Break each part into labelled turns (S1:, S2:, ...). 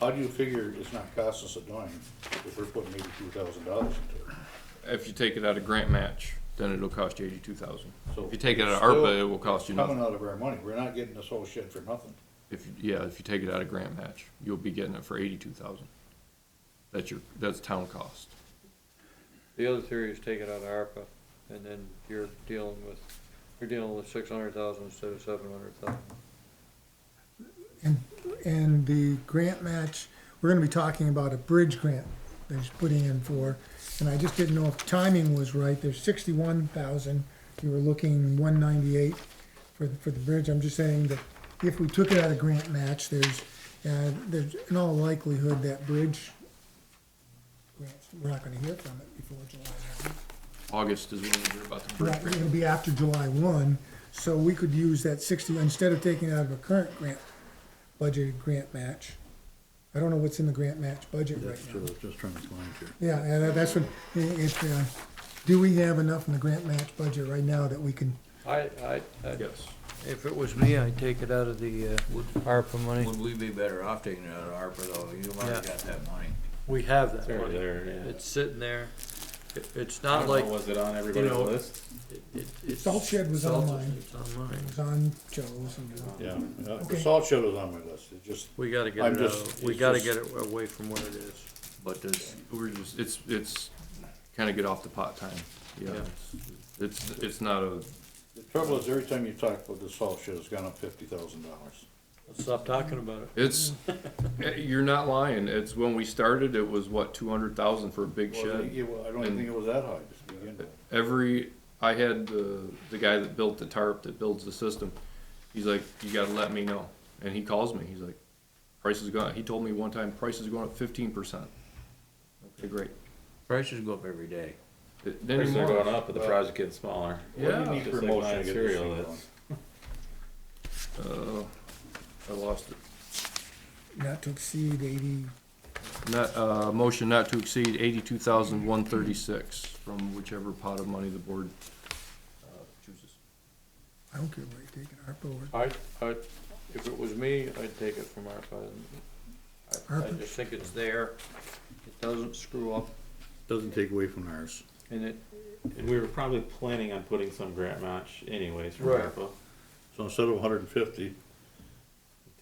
S1: How do you figure it's not costing us a dime if we're putting eighty-two thousand dollars into it?
S2: If you take it out of grant match, then it'll cost you eighty-two thousand.
S1: So
S2: If you take it out of
S1: still
S2: ARPA, it will cost you
S1: Coming
S2: nothing.
S1: out of our money, we're not getting this whole shit for nothing.
S2: If, you- yeah, if you take it out of grant match, you'll be getting it for eighty-two thousand. That's your, that's town cost.
S3: The other theory is take it out of ARPA, and then you're dealing with, you're dealing with six hundred thousand instead of seven hundred thousand.
S4: And, and the grant match, we're gonna be talking about a bridge grant that he's putting in for, and I just didn't know if timing was right, there's sixty-one thousand, you were looking one ninety-eight for, the- for the bridge, I'm just saying that if we took it out of grant match, there's, uh, there's in all likelihood that bridge grants, we're not gonna hear from it before July one.
S2: August is when we hear about the bridge
S4: Right,
S2: grant.
S4: it'll be after July one, so we could use that sixty, instead of taking it out of a current grant, budgeted grant match. I don't know what's in the grant match budget right now.
S1: was just trying to find here.
S4: Yeah, and that- that's what, i- if, uh, do we have enough in the grant match budget right now that we can,
S3: I, I, I-
S2: Yes.
S3: if it was me, I'd take it out of the, uh,
S5: Would,
S3: ARPA money.
S5: would we be better off taking it out of ARPA though? You've already got that money.
S3: We have that
S6: There,
S3: money.
S6: there, yeah.
S3: It's sitting there. It, it's
S6: I
S3: not
S6: don't
S3: like,
S6: know, was it on everybody's
S3: know,
S6: list?
S3: it, it- it's.
S4: Salt shed was
S3: salt-
S4: online.
S3: It's online.
S4: it's on Joe's and.
S1: Yeah, yeah, the
S4: Okay.
S1: salt shed was on my list, it just,
S3: We gotta get
S1: I'm
S3: it out,
S1: just-
S3: of- we
S1: it's
S3: gotta
S1: just-
S3: get it away from where it is.
S5: But does,
S2: We're just, it's, it's kinda get off the pot time. Yeah.
S3: Yeah.
S2: It's, it's not a,
S1: the trouble is, every time you talk about the salt shed, it's gone up fifty thousand dollars.
S3: Stop talking about it.
S2: it's, eh, you're not lying. It's when we started, it was what, two hundred thousand for a big
S1: Well, I
S2: shed?
S1: think it wa- I don't even
S2: And-
S1: think it was that high to begin with.
S2: every I had the the guy that built the tarp that builds the system. He's like, you gotta let me know, and he calls me. He's like, price is going. He told me one time, price is going up fifteen percent. Okay, great.
S5: prices go up every day.
S2: It- then
S6: Prices
S2: he
S6: are
S2: wants-
S6: going up, but the
S1: Well-
S6: project gets smaller.
S1: What do
S2: Yeah.
S1: you need
S6: Just
S1: for
S6: like
S1: motion to get this
S6: non-serial
S1: thing
S6: is.
S1: going?
S2: Uh, I lost it.
S4: Not to exceed eighty,
S2: Not, uh, motion not to exceed eighty-two thousand one thirty-six from whichever pot of money the board uh, chooses.
S4: I don't care where you take it, ARPA or,
S3: I, I, if it was me, I'd take it from ARPA. I, I
S4: ARPA?
S3: just think it's there, it doesn't screw up,
S1: Doesn't take away from ours.
S3: and it,
S6: And we were probably planning on putting some grant match anyways from
S3: Right.
S6: ARPA.
S1: So instead of hundred and fifty,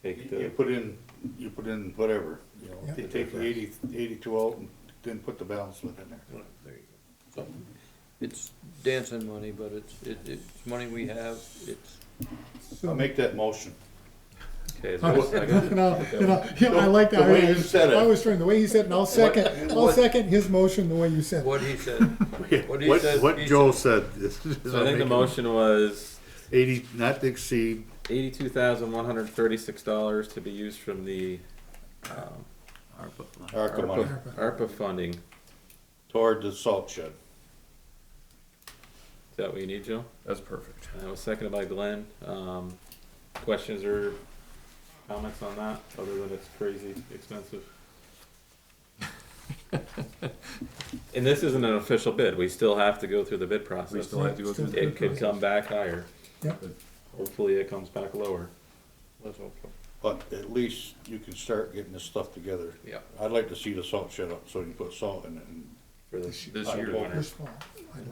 S6: Take
S1: you
S6: the,
S1: put in, you put in whatever, you know,
S4: Yeah.
S1: you take the eighty, eighty-two out and then put the balance limit in there.
S3: there you go. So, It's dancing money, but it's, it, it's money we have, it's,
S1: I'll make that motion.
S6: okay, is
S4: I
S6: there a second?
S4: I like that.
S1: The way you said it.
S4: I was trying, the way he said it, and I'll second, I'll
S1: what-
S4: second his motion the way you said it.
S3: what he said, What he said- he
S1: said. is- is
S6: So I
S1: what
S6: think the
S1: make it-
S6: motion was
S1: Eighty, not to exceed,
S6: eighty-two thousand one hundred thirty-six dollars to be used from the, um,
S1: ARPA money
S4: ARPA.
S6: ARPA funding. Is
S1: toward the salt shed.
S6: that what you need, Joe?
S2: That's perfect.
S6: And that was seconded by Glenn. Um, questions or comments on that, other than it's crazy expensive? And this isn't an official bid. We still have to go through the bid
S2: We
S6: process.
S2: still have to go through. the
S6: It could come back higher.
S4: Yep.
S6: Hopefully it comes back lower.
S3: let's hope so.
S1: But at least you can start getting this stuff together.
S6: Yeah.
S1: I'd like to see the salt shed up so you can put salt in it and
S6: For the
S2: This
S6: for the
S2: year.
S6: winter.
S4: First of all, I'd like-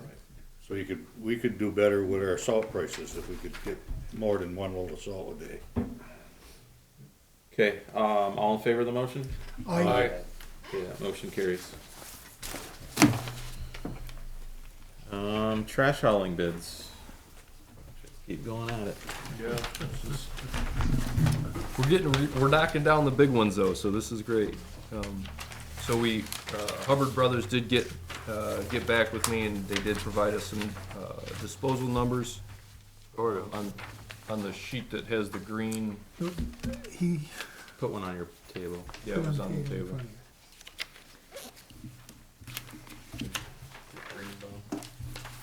S1: so you could, we could do better with our salt prices if we could get more than one load of salt a day.
S6: Okay, um, all in favor of the motion?
S4: I,
S6: Okay, that motion carries. Um, trash hauling bids. Keep going at it.
S2: We're getting, re- we're knocking down the big ones though, so this is great. Um, So we, uh, Hubbard Brothers did get, uh, get back with me and they did provide us some uh, disposal numbers. Or on, on the sheet that has the green,
S4: he.
S6: Put one on your table.
S2: yeah, it was on the
S4: put
S2: table.
S4: in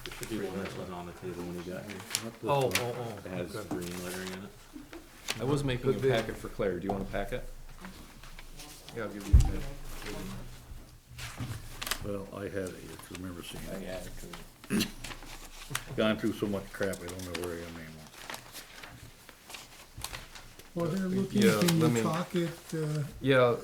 S6: It should be one that was on the table when you got here.
S3: Oh, oh, oh,
S6: It has
S3: okay.
S6: green lettering in it.
S2: I was making a packet for Claire, do you want a packet? Yeah, I'll give you a packet.
S1: Well, I had it, I remember seeing it. Gone through so much crap, I don't know where I am anymore.
S4: Well, they're looking,
S2: Yeah, let
S4: can
S2: me-
S4: you talk it, uh?
S2: Yeah,